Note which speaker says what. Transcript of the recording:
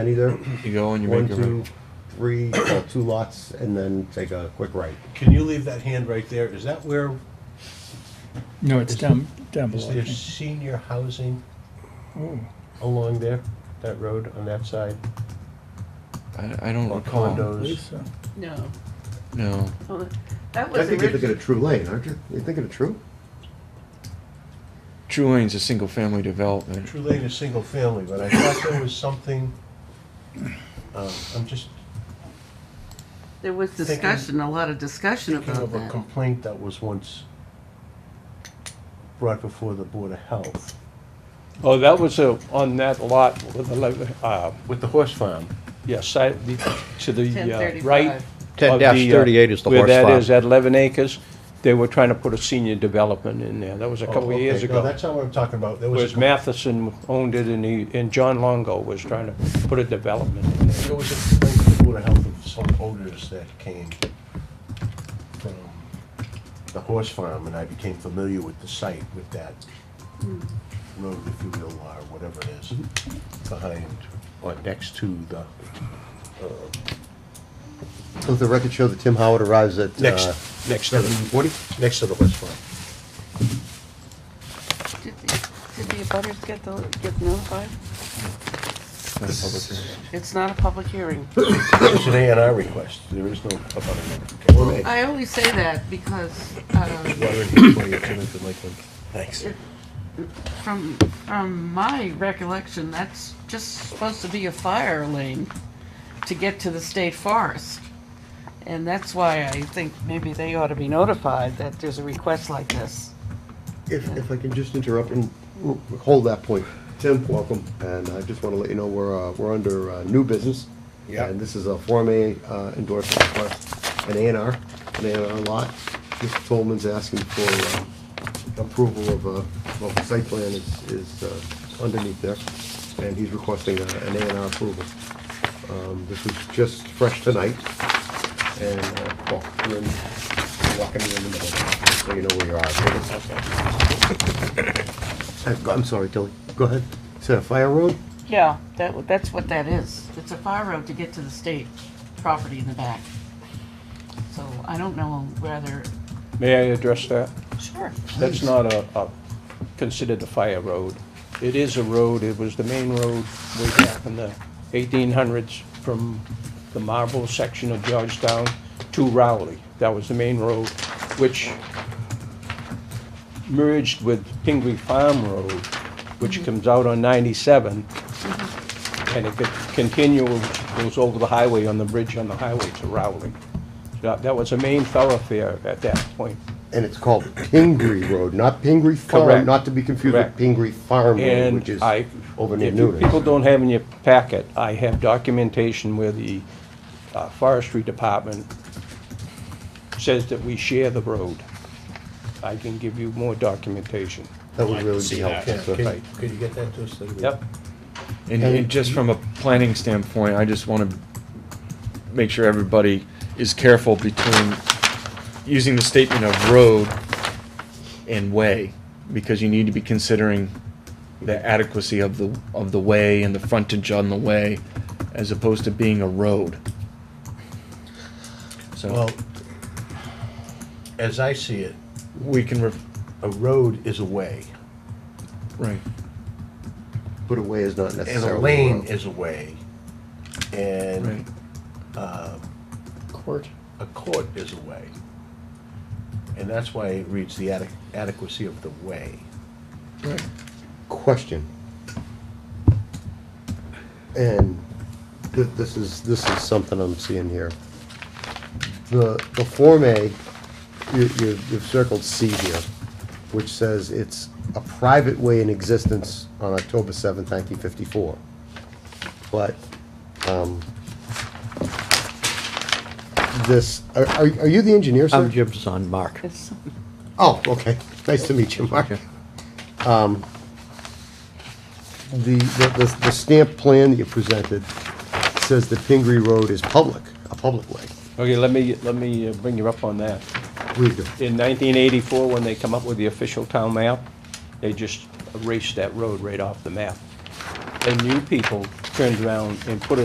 Speaker 1: Any there?
Speaker 2: You go and you
Speaker 1: One,
Speaker 2: make a
Speaker 1: two, three, well, two lots, and then take a quick right.
Speaker 3: Can you leave that hand right there? Is that where,
Speaker 4: No, it's down, down
Speaker 3: is
Speaker 4: below. I
Speaker 3: there
Speaker 4: think.
Speaker 3: senior housing
Speaker 4: Oh,
Speaker 3: along there, that road on that side?
Speaker 2: I, I don't
Speaker 3: Or
Speaker 2: recall.
Speaker 4: I
Speaker 3: condos?
Speaker 4: believe so.
Speaker 5: No.
Speaker 2: No.
Speaker 5: Oh, That
Speaker 1: I
Speaker 5: was
Speaker 1: think you're thinking
Speaker 5: originally,
Speaker 1: of True Lane, aren't you? You're thinking of True?
Speaker 2: True Lane's a single family development.
Speaker 3: True Lane is single family, but I thought there was something, um, I'm just
Speaker 5: there was
Speaker 3: thinking-
Speaker 5: discussion, a lot of discussion
Speaker 3: thinking
Speaker 5: about
Speaker 3: of a
Speaker 5: that.
Speaker 3: complaint that was once brought before the Board of Health
Speaker 6: Oh, that was uh, on that lot with the, lo- uh,
Speaker 3: with the horse farm.
Speaker 6: yes, I- the- to the uh,
Speaker 5: 1035.
Speaker 6: right.
Speaker 7: Ten
Speaker 6: of the, uh,
Speaker 7: dash thirty-eight is the horse
Speaker 6: Where that
Speaker 7: farm.
Speaker 6: is, at 11 acres, they were trying to put a senior development in there. That was a
Speaker 3: Oh,
Speaker 6: couple of years
Speaker 3: okay.
Speaker 6: ago.
Speaker 3: No, that's not what I'm talking about. There was,
Speaker 6: was
Speaker 3: a com-
Speaker 6: Matheson owned it and he, and John Longo was trying to put a development in there.
Speaker 3: there was a complaint to the Board of Health of some odors that came from the horse farm, and I became familiar with the site with that road, if you will, or whatever it is, behind or next to the, uh,
Speaker 1: Does the record show that Tim Howard arrives at?
Speaker 3: Next.
Speaker 1: uh,
Speaker 3: next to the,
Speaker 1: Forty?
Speaker 3: next to the horse farm.
Speaker 5: Did the- did the abutters get the, get notified?
Speaker 2: Not a public hearing.
Speaker 5: It's not a public hearing.
Speaker 3: It's an A and R request. There is no about
Speaker 1: Well,
Speaker 5: I only say that because, um,
Speaker 3: Thanks.
Speaker 5: From, from my recollection, that's just supposed to be a fire lane to get to the state forest. And that's why I think maybe they ought to be notified that there's a request like this.
Speaker 1: If, if I can just interrupt and r- hold that point. Tim, welcome, and I just want to let you know we're, uh, we're under uh, new business.
Speaker 3: Yeah.
Speaker 1: And this is a Form A uh, endorsement for an A and R, an A and R lot. Mr. Tolman's asking for uh, approval of a, well, the site plan is, is uh, underneath there, and he's requesting a- an A and R approval. Um, This was just fresh tonight, and, uh, well, we're in- walking in the middle, so you know where you are. I've got- I'm sorry, Tilly. Uh, Go ahead. Is that a fire road?
Speaker 5: Yeah, that, that's what that is. It's a fire road to get to the state property in the back. So I don't know whether,
Speaker 6: May I address that?
Speaker 5: sure.
Speaker 6: That's not a, a, considered a fire road. It is a road, it was the main road way back in the eighteen hundreds from the Marble section of Georgetown to Rowley. That was the main road, which merged with Pingree Farm Road, which comes out on ninety-seven. And it could continue, goes over the highway on the bridge on the highway to Rowley. That, that was a main thoroughfare at that point.
Speaker 1: And it's called Pingree Road, not Pingree Farm,
Speaker 6: Correct.
Speaker 1: not to be confused with
Speaker 6: Correct.
Speaker 1: Pingree Farm Road, which is
Speaker 6: And I,
Speaker 1: over near
Speaker 6: if you
Speaker 1: Newton.
Speaker 6: people don't have in your packet, I have documentation where the uh, forestry department says that we share the road. I can give you more documentation.
Speaker 1: That would really be helpful. so-
Speaker 3: Can can you get that to us? later?
Speaker 6: Yep.
Speaker 2: And,
Speaker 1: And-
Speaker 2: and just from a planning standpoint, I just want to make sure everybody is careful between using the statement of road and way, because you need to be considering the adequacy of the, of the way and the frontage on the way, as opposed to being a road. So,
Speaker 3: Well, as I see it,
Speaker 2: we can, re-
Speaker 3: a road is a way,
Speaker 2: right,
Speaker 1: Put away is not
Speaker 3: and a
Speaker 1: necessarily a
Speaker 3: lane
Speaker 1: road.
Speaker 3: is a way,
Speaker 2: right.
Speaker 3: and
Speaker 4: Court.
Speaker 3: a court is a way. And that's why it reads the adequ- adequacy of the way.
Speaker 1: Question. And th- this is, this is something I'm seeing here. The, the Form A, you, you- you've circled C here, which says it's a private way in existence on October seventh, nineteen fifty-four. But, um, this, are, are are you the engineer, sir?
Speaker 7: I'm Jim's son, Mark.
Speaker 5: It's-
Speaker 1: Oh, okay. Nice to meet you, Mark. Um, the, the, the- the stamp plan that you presented says that Pingree Road is public, a public way.
Speaker 6: Okay, let me, let me uh, bring you up on that.
Speaker 1: Read the-
Speaker 6: In 1984, when they come up with the official town map, they just erased that road right off the map. And you people turned around and put